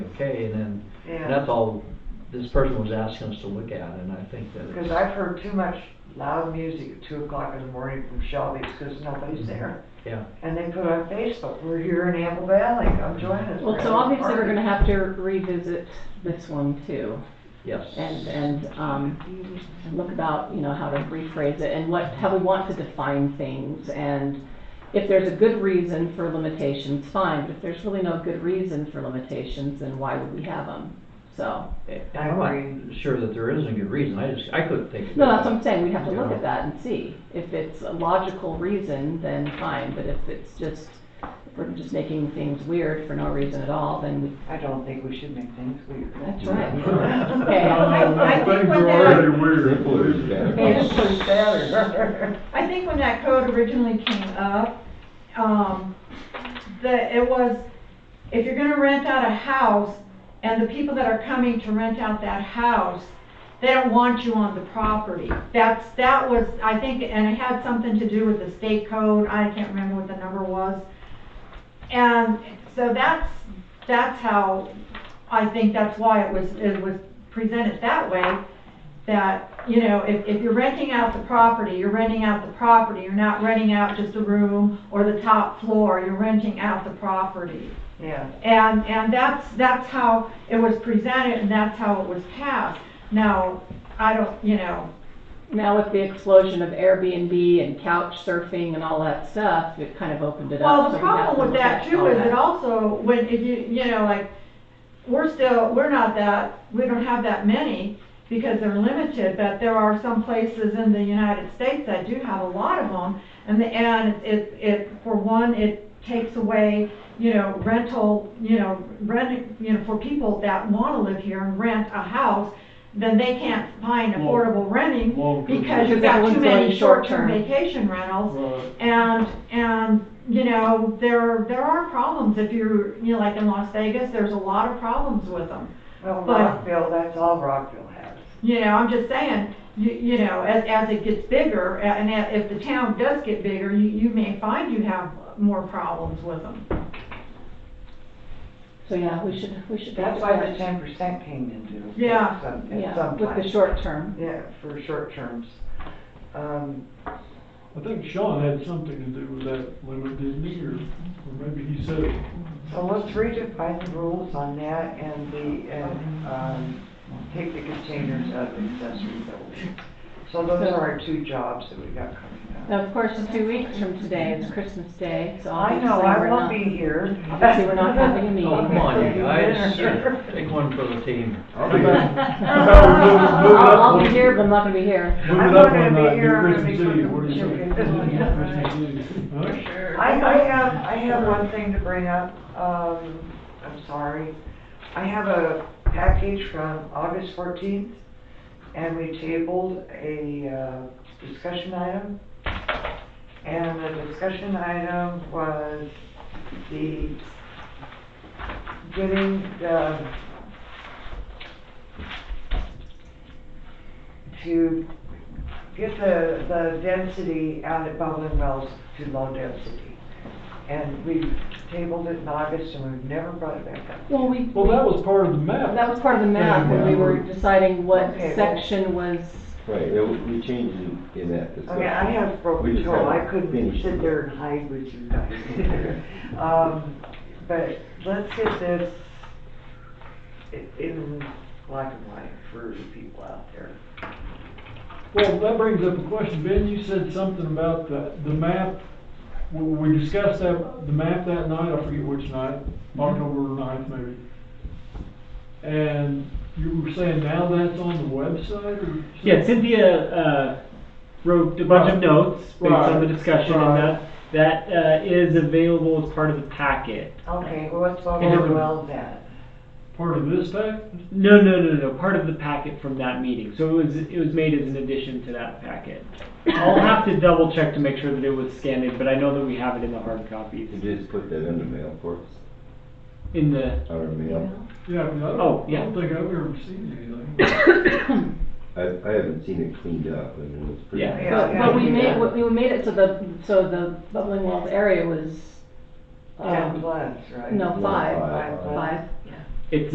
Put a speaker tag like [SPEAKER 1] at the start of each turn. [SPEAKER 1] okay, and then, and
[SPEAKER 2] Yeah,
[SPEAKER 1] that's all this person was asking us to look at, and I think that
[SPEAKER 2] because
[SPEAKER 1] it's,
[SPEAKER 2] I've heard too much loud music at two o'clock in the morning from Shelby's because nobody's there.
[SPEAKER 1] yeah.
[SPEAKER 2] And they put on Facebook, we're here in Apple Valley, come join us.
[SPEAKER 3] Well,
[SPEAKER 2] We're
[SPEAKER 3] so
[SPEAKER 2] having a
[SPEAKER 3] obviously, we're
[SPEAKER 2] party."
[SPEAKER 3] gonna have to revisit this one too,
[SPEAKER 1] Yes.
[SPEAKER 3] and, and, um, and look about, you know, how to rephrase it, and what, how we want to define things, and if there's a good reason for limitations, fine, but if there's really no good reason for limitations, then why would we have them? So,
[SPEAKER 1] And I'm not sure that there isn't a good reason, I just, I couldn't think of it.
[SPEAKER 3] no, that's what I'm saying, we have to look at that and see, if it's a logical reason, then fine, but if it's just, if we're just making things weird for no reason at all, then we,
[SPEAKER 2] I don't think we should make things weird.
[SPEAKER 3] that's
[SPEAKER 1] Oh,
[SPEAKER 3] right.
[SPEAKER 4] Well, I, I think
[SPEAKER 5] Things
[SPEAKER 4] when
[SPEAKER 5] are
[SPEAKER 4] that,
[SPEAKER 5] already weird, please,
[SPEAKER 2] It's
[SPEAKER 5] Dan.
[SPEAKER 2] just better.
[SPEAKER 4] I think when that code originally came up, um, the, it was, if you're gonna rent out a house, and the people that are coming to rent out that house, they don't want you on the property. That's, that was, I think, and it had something to do with the state code, I can't remember what the number was. And so that's, that's how, I think that's why it was, it was presented that way, that, you know, if, if you're renting out the property, you're renting out the property, you're not renting out just a room or the top floor, you're renting out the property.
[SPEAKER 2] Yeah,
[SPEAKER 4] And, and that's, that's how it was presented and that's how it was passed. Now, I don't, you know,
[SPEAKER 3] Now with the explosion of Airbnb and couch surfing and all that stuff, it kind of opened it up.
[SPEAKER 4] well,
[SPEAKER 3] so
[SPEAKER 4] the
[SPEAKER 3] we have to
[SPEAKER 4] problem with
[SPEAKER 3] look
[SPEAKER 4] that
[SPEAKER 3] at
[SPEAKER 4] too
[SPEAKER 3] all
[SPEAKER 4] is
[SPEAKER 3] that.
[SPEAKER 4] it also, when, if you, you know, like, we're still, we're not that, we don't have that many because they're limited, but there are some places in the United States that do have a lot of them. And the, and it, it, for one, it takes away, you know, rental, you know, rent, you know, for people that wanna live here and rent a house, then they can't find
[SPEAKER 6] Well,
[SPEAKER 4] affordable renting
[SPEAKER 6] well,
[SPEAKER 4] because you've
[SPEAKER 3] because
[SPEAKER 4] got
[SPEAKER 3] everyone's
[SPEAKER 4] too
[SPEAKER 3] going
[SPEAKER 4] many short-term
[SPEAKER 3] short-term.
[SPEAKER 4] vacation rentals.
[SPEAKER 6] Right.
[SPEAKER 4] And, and, you know, there, there are problems if you're, you know, like in Las Vegas, there's a lot of problems with them.
[SPEAKER 2] well,
[SPEAKER 4] But-
[SPEAKER 2] Rockville, that's all Rockville has.
[SPEAKER 4] You know, I'm just saying, you, you know, as, as it gets bigger, a- and a- if the town does get bigger, you, you may find you have more problems with them.
[SPEAKER 3] So, yeah, we should, we should.
[SPEAKER 2] That's
[SPEAKER 3] look
[SPEAKER 2] why
[SPEAKER 3] at
[SPEAKER 2] the
[SPEAKER 3] that.
[SPEAKER 2] ten percent came into. effect
[SPEAKER 4] Yeah,
[SPEAKER 2] some- At
[SPEAKER 3] Yeah,
[SPEAKER 2] some
[SPEAKER 3] with the
[SPEAKER 2] time,
[SPEAKER 3] short term.
[SPEAKER 2] yeah, for short terms. Um,
[SPEAKER 6] I think Sean had something to do with that limit, didn't he, or, or maybe he said it.
[SPEAKER 2] So let's redefine the rules on that and the, and, um, take the containers out of accessory buildings. So those are our two jobs that we got coming up.
[SPEAKER 3] Now, of course, in two weeks from today is Christmas Day, so
[SPEAKER 2] Mm-hmm. I
[SPEAKER 3] obviously
[SPEAKER 2] know, I
[SPEAKER 3] we're
[SPEAKER 2] won't
[SPEAKER 3] not.
[SPEAKER 2] be here.
[SPEAKER 3] obviously we're not having a
[SPEAKER 1] Oh,
[SPEAKER 3] meeting.
[SPEAKER 1] come on, you
[SPEAKER 2] Okay.
[SPEAKER 1] guys, take one for the team.
[SPEAKER 5] I'll be there.
[SPEAKER 3] I'll I'll be here, but I'm not gonna be here.
[SPEAKER 6] Move it
[SPEAKER 2] I'm
[SPEAKER 6] up
[SPEAKER 2] gonna
[SPEAKER 6] one
[SPEAKER 2] be
[SPEAKER 6] night, do
[SPEAKER 2] here, I'm
[SPEAKER 6] Christmas
[SPEAKER 2] gonna be
[SPEAKER 6] Eve, what do you
[SPEAKER 2] cooking
[SPEAKER 6] think?
[SPEAKER 2] chicken. Yeah,
[SPEAKER 6] Christmas Eve, huh?
[SPEAKER 2] I, I have, I have one thing to bring up, um, I'm sorry. I have a package from August fourteenth, and we tabled a, uh, discussion item. And the discussion item was the, getting the, to get the, the density out at Bubbling Wells to low density. And we tabled it in August and we've never brought it back up.
[SPEAKER 3] Well, we,
[SPEAKER 6] Well, that was part of the map.
[SPEAKER 3] that was part of the map when we were deciding what
[SPEAKER 2] Okay, well-
[SPEAKER 3] section was,
[SPEAKER 5] Right, it- we changed it in that
[SPEAKER 2] I mean,
[SPEAKER 5] discussion.
[SPEAKER 2] I have
[SPEAKER 5] We
[SPEAKER 2] broken
[SPEAKER 5] just
[SPEAKER 2] toe, I
[SPEAKER 5] haven't
[SPEAKER 2] couldn't
[SPEAKER 5] finished
[SPEAKER 2] sit
[SPEAKER 5] it.
[SPEAKER 2] there and hide with you guys. Um, but let's get this i- in black and white for the people out there.
[SPEAKER 6] Well, that brings up a question, Ben, you said something about the, the map, we, we discussed that, the map that night, I forget which night,
[SPEAKER 7] Mm-hmm.
[SPEAKER 6] October ninth maybe. And you were saying now that's on the website or? something?
[SPEAKER 7] Yeah, Cynthia, uh, wrote a bunch of
[SPEAKER 6] Right.
[SPEAKER 7] notes based on the
[SPEAKER 6] Right.
[SPEAKER 7] discussion
[SPEAKER 6] Right.
[SPEAKER 7] and that, that, uh, is available as part of the packet.
[SPEAKER 2] Okay, well, let's talk
[SPEAKER 7] And
[SPEAKER 2] about
[SPEAKER 7] everyone-
[SPEAKER 2] well then.
[SPEAKER 6] Part of this pack?
[SPEAKER 7] No, no, no, no, part of the packet from that meeting, so it was, it was made as an addition to that packet. I'll have to double check to make sure that it was scanned in, but I know that we have it in the hard copies,
[SPEAKER 5] You just put that in the mail for us,
[SPEAKER 7] in the,
[SPEAKER 5] our mail.
[SPEAKER 6] Yeah, I mean, I don't,
[SPEAKER 7] Oh,
[SPEAKER 6] I
[SPEAKER 7] yeah.
[SPEAKER 6] don't think I've ever seen anything.
[SPEAKER 5] I, I haven't seen it cleaned up, I mean, it's pretty.
[SPEAKER 7] Yeah.
[SPEAKER 2] Yeah,
[SPEAKER 3] well, we
[SPEAKER 2] yeah.
[SPEAKER 3] made, we we made it so the, so the Bubbling Wells area was,
[SPEAKER 2] Ten
[SPEAKER 3] um,
[SPEAKER 2] plus, right?
[SPEAKER 3] no,
[SPEAKER 5] No,
[SPEAKER 3] five,
[SPEAKER 5] five.
[SPEAKER 3] five,